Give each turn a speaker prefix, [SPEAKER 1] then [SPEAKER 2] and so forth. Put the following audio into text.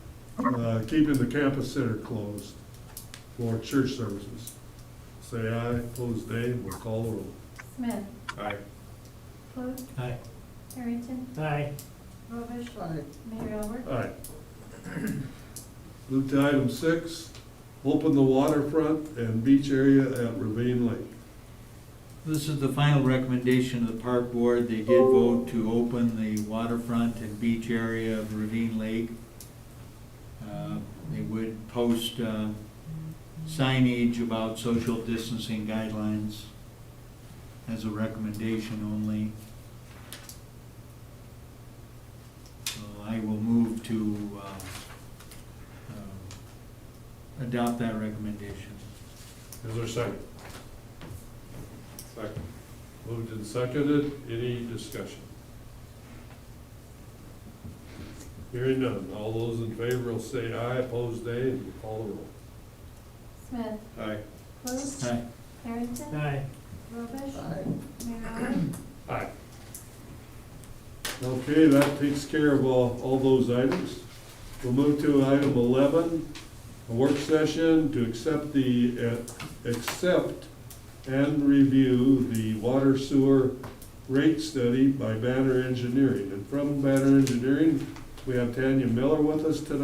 [SPEAKER 1] uh, keeping the campus center closed for church services. Say aye, opposed nay, we'll call the roll.
[SPEAKER 2] Smith,
[SPEAKER 3] Aye.
[SPEAKER 2] Clute,
[SPEAKER 4] Aye.
[SPEAKER 2] Harrington,
[SPEAKER 4] Aye.
[SPEAKER 2] Robish, Mayor Albert.
[SPEAKER 1] Aye. Move to item six, open the waterfront and beach area at Ravine Lake.
[SPEAKER 5] This is the final recommendation of the park board. They did vote to open the waterfront and beach area of Ravine Lake. Uh, They would post uh, signage about social distancing guidelines as a recommendation only. So I will move to uh, uh, adopt that recommendation.
[SPEAKER 1] Is there a second?
[SPEAKER 3] Second.
[SPEAKER 1] Moved and seconded, any discussion? Hearing none, all those in favor will say aye, opposed nay, and we'll call the roll.
[SPEAKER 2] Smith,
[SPEAKER 3] Aye.
[SPEAKER 2] Clute,
[SPEAKER 5] Aye.
[SPEAKER 2] Harrington,
[SPEAKER 4] Aye.
[SPEAKER 2] Robish. Mayor Albert.
[SPEAKER 1] Aye. Okay, that takes care of all, all those items. We'll move to item eleven, a work session to accept the, uh, accept and review the water sewer rate study by Banner Engineering. And from Banner Engineering, we have Tanya Miller with us tonight.